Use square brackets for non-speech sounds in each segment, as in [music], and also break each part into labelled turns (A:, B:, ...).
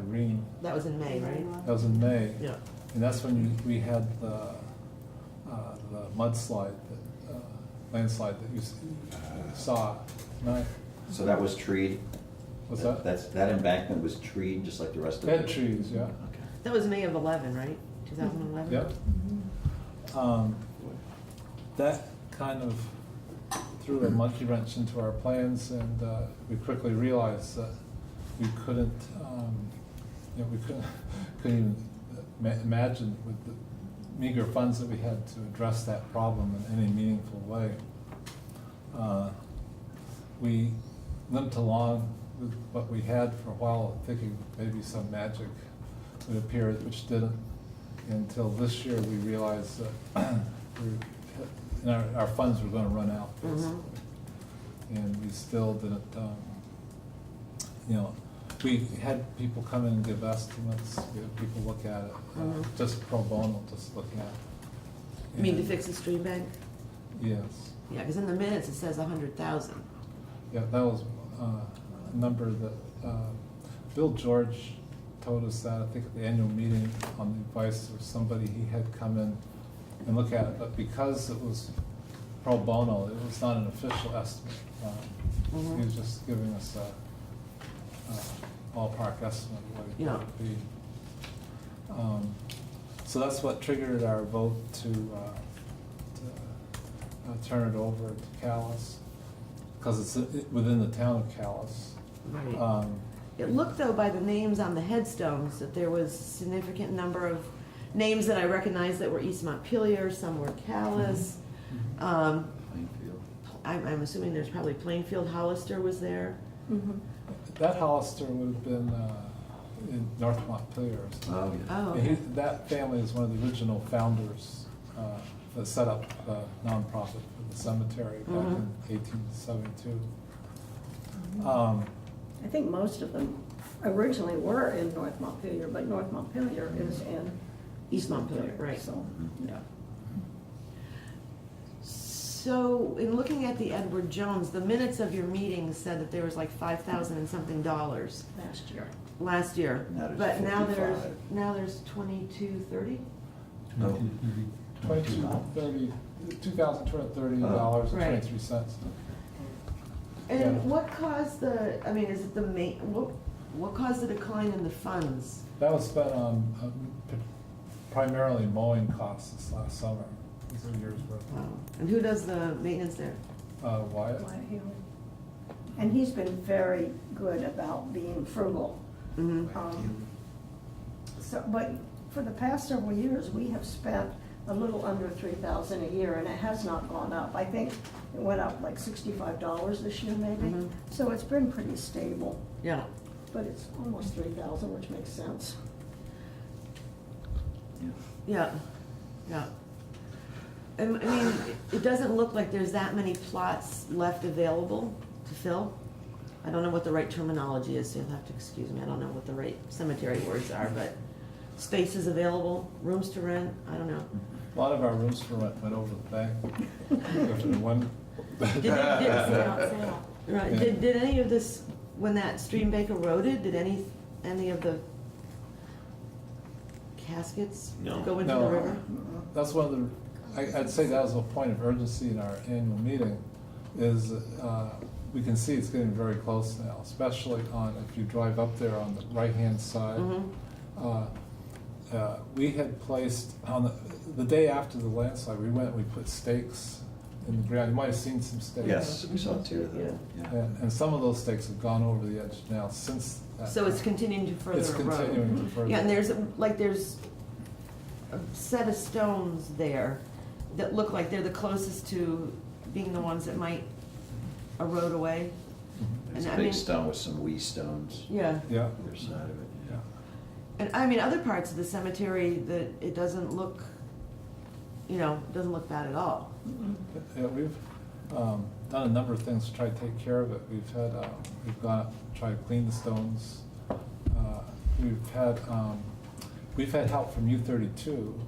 A: Irene,
B: That was in May, right?
A: that was in May.
B: Yeah.
A: And that's when you- we had the, uh, the mudslide, that, uh, landslide that you s- saw tonight.
C: So that was treed?
A: What's that?
C: That's, that embankment was treed, just like the rest of it?
A: Bed trees, yeah.
C: Okay.
B: That was May of eleven, right? Two thousand eleven?
A: Yep. Um, That kind of threw a monkey wrench into our plans and uh, we quickly realized that we couldn't, um, you know, we couldn't, [laughs] couldn't even ma- imagine with the meager funds that we had to address that problem in any meaningful way. Uh, We limped along with what we had for a while, thinking maybe some magic would appear, which didn't. Until this year, we realized that [clears throat] we're- and our, our funds were gonna run out,
B: Mhm.
A: basically. And we still didn't, um, you know, we had people come in and give estimates, we had people look at it, uh,
B: Mhm.
A: just pro bono, just looking at it.
B: You mean to
A: And-
B: fix the stream bank?
A: Yes.
B: Yeah, because in the minutes it says a hundred thousand.
A: Yeah, that was uh, a number that, uh, Bill George told us that, I think at the annual meeting, on the advice of somebody, he had come in and look at it, but because it was pro bono, it was not an official estimate. Um, He was
B: Mhm.
A: just giving us a a ballpark estimate of what it
B: Yeah.
A: would be. Um, So that's what triggered our vote to, uh, to uh, turn it over to Callis, because it's uh, within the town of Callis.
B: Right.
A: Um,
B: It looked though by the names on the headstones that there was significant number of names that I recognized that were East Montpelier, some were Callis. Um,
C: Plainfield.
B: I'm, I'm assuming there's probably Plainfield Hollister was there.
A: Mhm. That Hollister would have been uh, in North Montpelier or something.
C: Oh, yeah.
B: Oh,
A: And he-
B: okay.
A: That family is one of the original founders uh, that set up the nonprofit for the cemetery back in
B: Mhm.
A: 1872.
B: Mm-hmm.
D: Mhm.
A: Um,
D: I think most of them originally were in North Montpelier, but North Montpelier is in
B: East Montpelier, right. Mm-hmm.
D: So, yeah.
B: So, in looking at the Edward Jones, the minutes of your meeting said that there was like five thousand and something dollars
D: last year.
B: last year.
C: Now there's
B: But now there's,
C: 55.
B: now there's twenty-two, thirty?
C: No.
A: Twenty-two Oh. thirty, two thousand two hundred thirty dollars and
B: Right.
A: twenty-three cents. Yeah.
B: And what caused the, I mean, is it the main, what, what caused the decline in the funds?
A: That was spent on um, p- primarily mowing costs this last summer, these are years worth.
B: Wow. Um, And who does the maintenance there?
A: Uh, Wyatt?
D: Wyatt Haley. And he's been very good about being frugal.
B: Mm-hmm,
D: Um, So, but for the past several years, we have spent a little under three thousand a year, and it has not gone up. I think it went up like sixty-five dollars this year maybe,
B: Mhm.
D: so it's been pretty stable,
B: yeah.
D: but it's almost three thousand, which makes sense.
C: Yeah.
B: Yeah, yeah. And, I mean, it- it doesn't look like there's that many plots left available to fill. I don't know what the right terminology is, so you'll have to excuse me, I don't know what the right cemetery words are, but spaces available, rooms to rent, I don't know.
A: A lot of our rooms for rent went over the bank. [laughs] After one-
B: Did they, did,
E: sale.
B: right, did, did any of this, when that stream bank eroded, did any, any of the caskets
E: No.
B: go into the
A: No.
B: river?
A: That's one of the, I- I'd say that was a point of urgency in our annual meeting, is uh, we can see it's getting very close now, especially on, if you drive up there on the right-hand side.
B: Mhm.
A: Uh, uh, We had placed, on the, the day after the landslide, we went, we put stakes in the ground. You might have seen some stakes.
C: Yes, we saw two of them, yeah.
A: And, and some of those stakes have gone over the edge now since. that-
B: So it's continuing to further erode?
A: It's continuing to further.
B: Yeah, and there's, like, there's a set of stones there that look like they're the closest to being the ones that might erode away.
A: Mhm.
C: It's
B: And I
C: a
B: mean-
C: big stone with some wee stones.
B: Yeah.
A: Yeah,
C: Either side of it,
A: yeah.
C: yeah.
B: And, I mean, other parts of the cemetery that it doesn't look, you know, doesn't look bad at all.
A: Yeah, we've um, done a number of things to try to take care of it. We've had, uh, we've gone, up to try to clean the stones. Uh, We've had, um, we've had help from U thirty-two.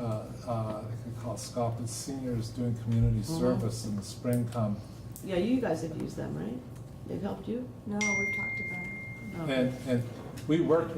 A: uh, uh, They could call Scoffin Seniors doing community
B: Mhm.
A: service in the spring come.
B: Yeah, you guys have used them, right? They've helped you?
E: No, we've talked about it.
B: Okay.
A: And, and we worked